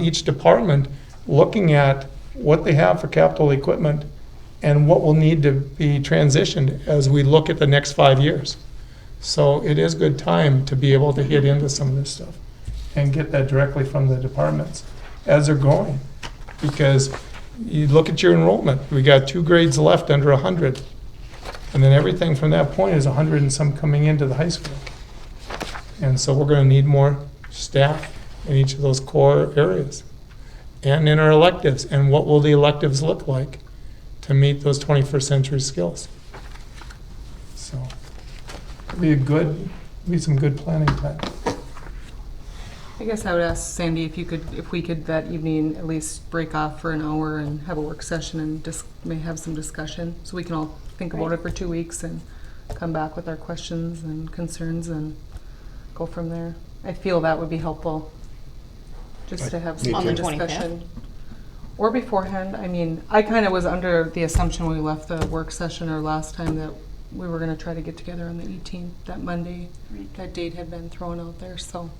each department looking at what they have for capital equipment and what will need to be transitioned as we look at the next five years. So it is good time to be able to hit into some of this stuff and get that directly from the departments as they're going. Because you look at your enrollment, we got two grades left under 100. And then everything from that point is 100 and some coming into the high school. And so we're going to need more staff in each of those core areas. And in our electives, and what will the electives look like to meet those 21st century skills? So it'll be a good, be some good planning time. I guess I would ask Sandy if you could, if we could that evening at least break off for an hour and have a work session and just may have some discussion, so we can all think about it for two weeks and come back with our questions and concerns and go from there. I feel that would be helpful, just to have some On the discussion. 25th? Or beforehand, I mean, I kind of was under the assumption when we left the work session or last time that we were gonna try to get together on the 18th, that Monday. That date had been thrown out there, so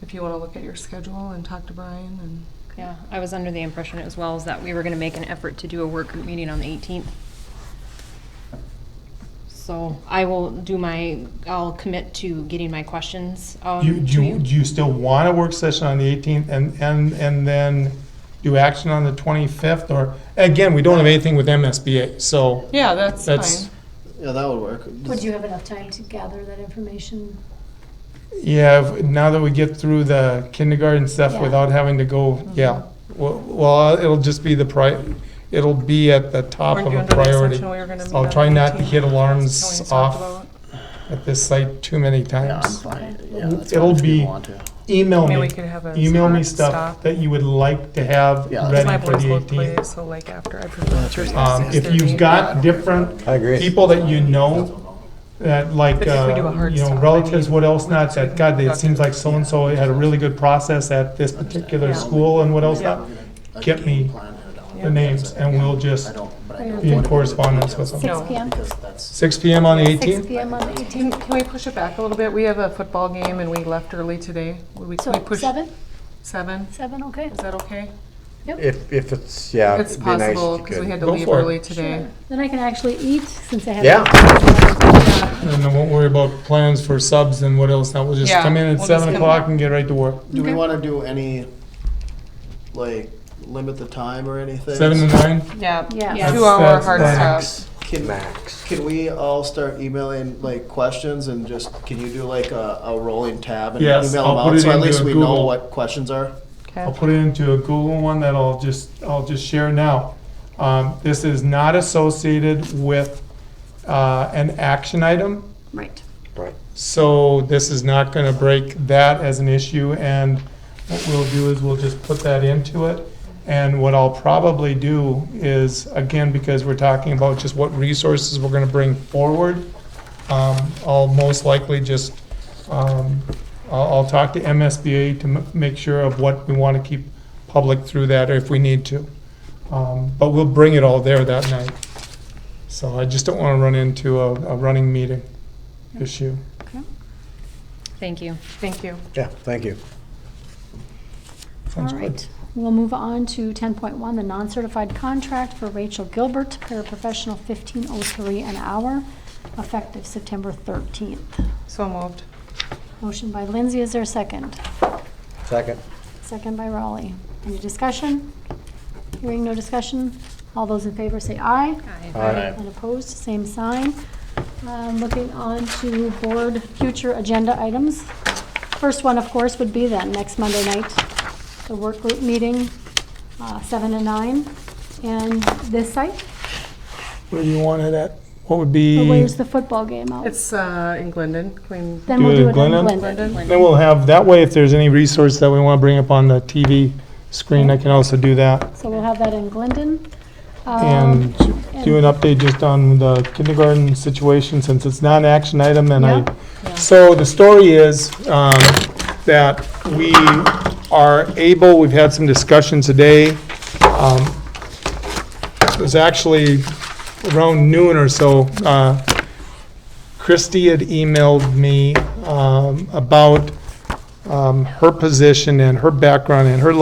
if you want to look at your schedule and talk to Brian and. Yeah, I was under the impression as well as that we were gonna make an effort to do a work group meeting on the eighteenth. So I will do my, I'll commit to getting my questions, You, um, do to you, you. do you still want a work session on the 18th and, and, and then do action on the 25th? Or, again, we don't have anything with MSBA, so Yeah, that's That's- fine. Yeah, that would work. Would you have enough time to gather that information? yeah, if- now that we get through the kindergarten stuff Yeah. without having to Mm-hmm. go, yeah. Well- Well, it'll just be the pri, it'll be at the top Weren't of you a under the priority. assumption we were gonna meet I'll on try the not to 18th? hit alarms That's what we talked off. about. at this site too many Yeah, I'm times. fine. Yeah, that's It'll fine if you be- want to. Email Maybe me, we could have a. email me hard stuff stop. that you would like to have Yeah, Because that's My ready for boys the both 18th. play, so like after I prefer Thursday. Um, if 6:30. you've got different I agree. people that you know, that like, But if we do a uh, hard you know, stop, I relatives, mean, what else not, we that, can God, it talk seems to- like so-and-so had a really good process at this particular Yeah. school and what else Yeah. not, get me the names, and we'll just I don't, but I Yeah. don't be in want to correspondence with them. Six No. PM? because that's. Six PM on the Six eighteenth? PM on the Can, eighteenth? can we push it back a little bit? We have a football game and we left early today. Would we, can we So push? seven, Seven? seven, okay? Is that okay? If, if it's, yeah. It's it'd Uh, be nice if possible, you because we could. had to Go leave for it. early today. Sure. Then I can actually eat since I have. Yeah. And then won't worry about plans for subs and what else not, we'll just Yeah, come in at we'll just seven come- o'clock and get right to work. Do we Okay. want to do any, like, limit the time or anything? Seven to nine? Yeah. Yeah. Yeah. Two hour That's- hard stop. that's- Can, Max. can we all start emailing, like, questions and just, can you do like a, a rolling tab and email Yes, them I'll put out? it So at into least a we know Google. what questions are? I'll Okay. put it into a Google one that I'll just, I'll just share now. Um, This is not associated with uh, an action item, Right. Right. so this is not going to break that as an issue. And what we'll do is we'll just put that into it. And what I'll probably do is, again, because we're talking about just what resources we're going to bring forward, um, I'll most likely just, um, I'll, I'll talk to MSBA to m- make sure of what we want to keep public through that, or if we need to. Um, But we'll bring it all there that night. So I just don't want to run into a, a running meeting issue. Thank you. Thank you. Yeah, thank you. All Sounds good. right, we'll move on to ten point one, the non-certified contract for Rachel Gilbert, paraprofessional fifteen oh three an hour, effective September thirteenth. So moved. Motion by Lindsay, is there a second? Second. Second by Raleigh. Any discussion? Hearing no discussion, all those in favor say aye. Aye. Aye. And opposed, same sign. Um, Looking on to board future agenda items. First one, of course, would be then, next Monday night, the work group meeting, uh, seven and nine. And this site, Where do you want it at? What would or be? where's the football game out? It's, uh, in Glendon, Queen. Then we'll Do do it in Glendon? Glendon. Then we'll have, that way, if there's any resource that we want to bring up on the TV screen, I can also do that. So we'll have that in Glendon. Um, And do an update just on the kindergarten situation, since it's not an action item, and Yeah. I, so the story is um, that we are able, we've had some discussion today. um, It was actually around noon or so, uh, Christie had emailed me um, about um, her position and her background and her